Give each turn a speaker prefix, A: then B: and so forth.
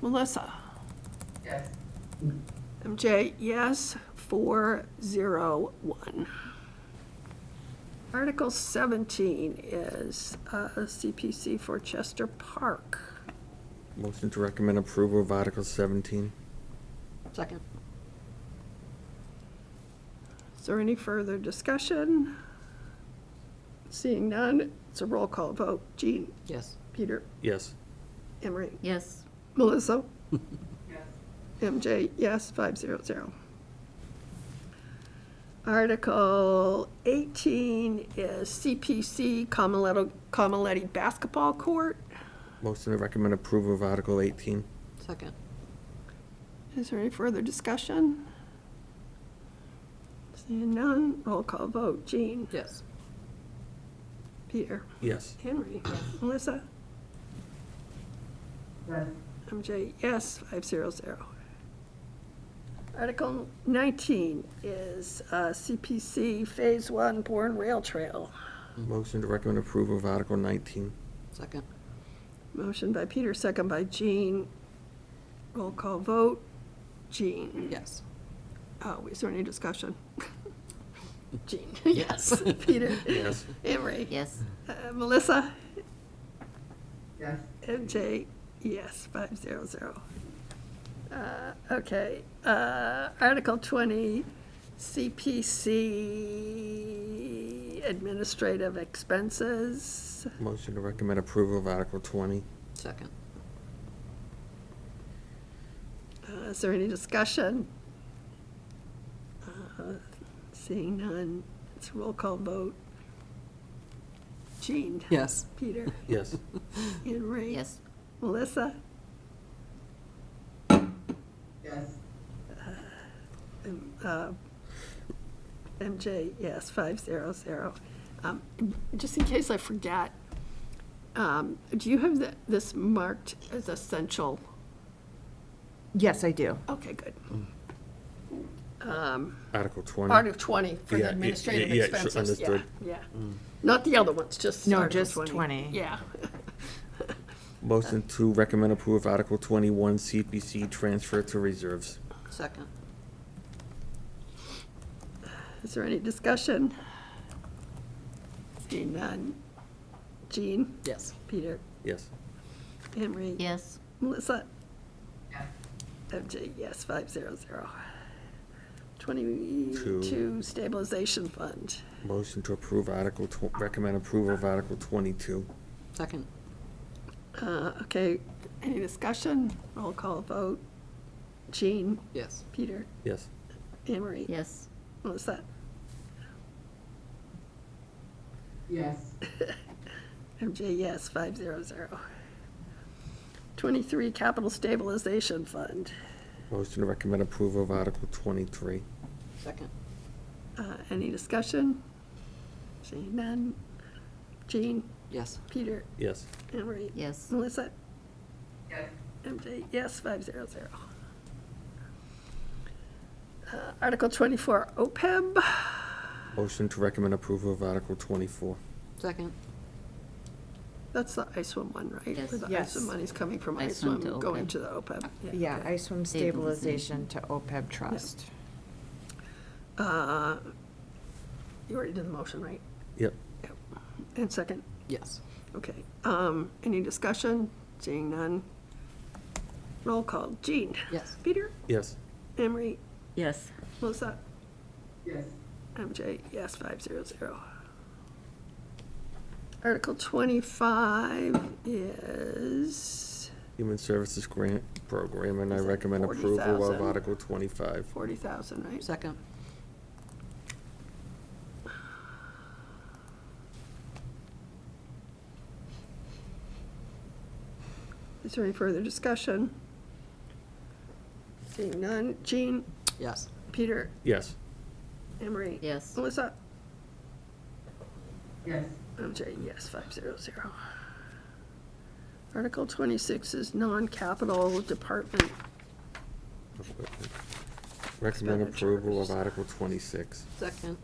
A: Melissa?
B: Yes.
A: MJ, yes, four, zero, one. Article 17 is uh, CPC for Chester Park.
C: Motion to recommend approval of Article 17.
A: Second. Is there any further discussion? Seeing none, it's a roll call vote. Jean,
D: Yes.
A: Peter,
C: Yes.
A: Emery,
D: Yes.
A: Melissa?
B: Yes.
A: MJ, yes, 500. Article 18 is CPC Comiletti Comiletti Basketball Court.
C: Motion to recommend approval of Article 18.
D: Second.
A: Is there any further discussion? Seeing none, roll call vote. Jean?
D: Yes.
A: Peter?
C: Yes.
A: Henry? Melissa?
B: Yes.
A: MJ, yes, 500. Article 19 is uh, CPC Phase 1 Bourne Rail Trail.
C: Motion to recommend approval of Article 19.
D: Second.
A: Motion by Peter, second by Jean. Roll call vote. Jean.
D: Yes.
A: Oh, is there any discussion? Jean.
D: Yes.
A: Peter.
C: Yes.
A: Emery.
D: Yes.
A: Uh, Melissa.
B: Yes.
A: MJ. Yes, five zero zero. Uh, Okay, uh, Article twenty, CPC administrative expenses.
C: Motion to recommend approval of Article 20.
D: Second.
A: Uh, Is there any discussion? Uh, Seeing none, it's a roll call vote. Jean?
D: Yes.
A: Peter?
C: Yes.
A: Henry? Melissa?
B: Yes.
A: Um, uh, MJ, yes, five zero zero. Um, Just in case I forget, um, do you have the- this marked as essential?
E: Yes, I do.
A: Okay, good. Um,
C: Article 20.
A: Article 20 for
C: Yeah,
A: the
C: yeah,
A: administrative
C: yeah, yeah, sure,
A: expenses, yeah,
C: understood.
A: yeah. Mm. Not the other ones, just
E: No,
A: Article
E: just
A: 20.
E: 20.
A: Yeah,
C: Motion to recommend approval of Article 21, CPC transfer to reserves.
D: Second.
A: is there any discussion? Seeing none. Jean,
D: Yes.
A: Peter,
C: Yes.
A: Henry.
D: Yes.
A: Melissa,
B: Yes.
A: MJ, yes, five zero zero. Twenty-two
C: Two.
A: stabilization fund.
C: Motion to approve Article, tw- recommend approval of Article 22.
D: Second.
A: Uh, okay, any discussion? Roll call vote. Jean,
D: Yes.
A: Peter,
C: Yes.
A: Emery.
D: Yes.
A: Melissa,
B: Yes.
A: MJ, yes, five zero zero. Twenty-three, capital stabilization fund.
C: Motion to recommend approval of Article 23.
D: Second.
A: Uh, any discussion? Seeing none. Jean,
D: Yes.
A: Peter,
C: Yes.
A: Emery.
D: Yes.
A: Melissa,
B: Yes.
A: MJ, yes, five zero zero. Uh, Article twenty-four, E OPEB.
C: Motion to recommend approval of Article 24.
D: Second.
A: That's the ISWIM one, right?
F: Yes.
A: Where the
E: Yes.
A: ISWIM money's coming from
F: ISWIM to
A: ISWIM, going
F: OPEB.
A: to the OPEB.
E: Yeah, I swim
F: Stabilization.
E: stabilization to OPEB trust.
A: Uh, You already did the motion, right?
C: Yep.
A: Yep. And second,
D: Yes.
A: okay. Um, Any discussion? Seeing none. Roll call. Jean?
D: Yes.
A: Peter?
C: Yes.
A: Emery?
F: Yes.
A: Melissa?
B: Yes.
A: MJ, yes, five zero zero. Article twenty-five is
C: Human Services Grant Program, and I
A: Is it
C: recommend approval of
A: 40,000?
C: Article 25.
A: forty thousand, right?
D: Second.
A: Is there any further discussion? Seeing none, Jean,
D: Yes.
A: Peter,
C: Yes.
A: Emery.
F: Yes.
A: Melissa?
B: Yes.
A: MJ, yes, five zero zero. Article twenty-six is non-capital department.
C: Recommend
A: Expenditures.
C: approval of Article 26.
D: Second.